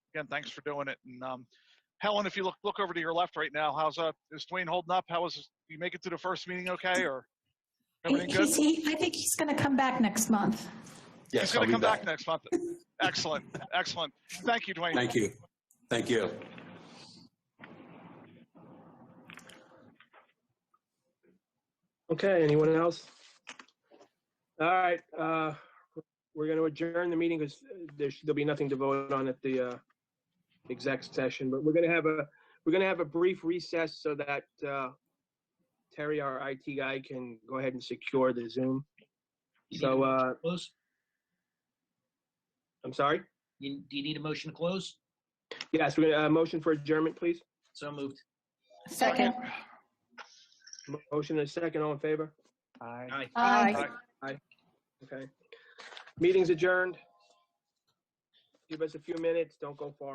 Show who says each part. Speaker 1: again, thanks for doing it. And um, Helen, if you look look over to your left right now, how's uh is Dwayne holding up? How is you make it to the first meeting okay or everything good?
Speaker 2: He's- he- I think he's going to come back next month.
Speaker 1: He's
Speaker 3: Yes, I'll
Speaker 1: gonna
Speaker 3: be
Speaker 1: come back
Speaker 3: back.
Speaker 1: next month. Excellent, excellent. Thank you, Dwayne.
Speaker 3: Thank you. Thank you.
Speaker 4: Okay, anyone else? All right, uh, we're going to adjourn the meeting because there should, there'll be nothing to vote on at the uh, exec session, but we're going to have a, we're going to have a brief recess so that uh, Terry, our IT guy, can go ahead and secure the Zoom.
Speaker 5: You need
Speaker 4: So,
Speaker 5: a
Speaker 4: uh,
Speaker 5: Close?
Speaker 4: I'm sorry?
Speaker 5: You- Do you need a motion to close?
Speaker 4: Yes, we're going to, uh, motion for adjournment, please.
Speaker 5: So moved.
Speaker 2: Second.
Speaker 4: Motion and a second, all in favor?
Speaker 5: Aye.
Speaker 2: Aye.
Speaker 1: Aye.
Speaker 4: Okay. Meeting's adjourned. Give us a few minutes, don't go far.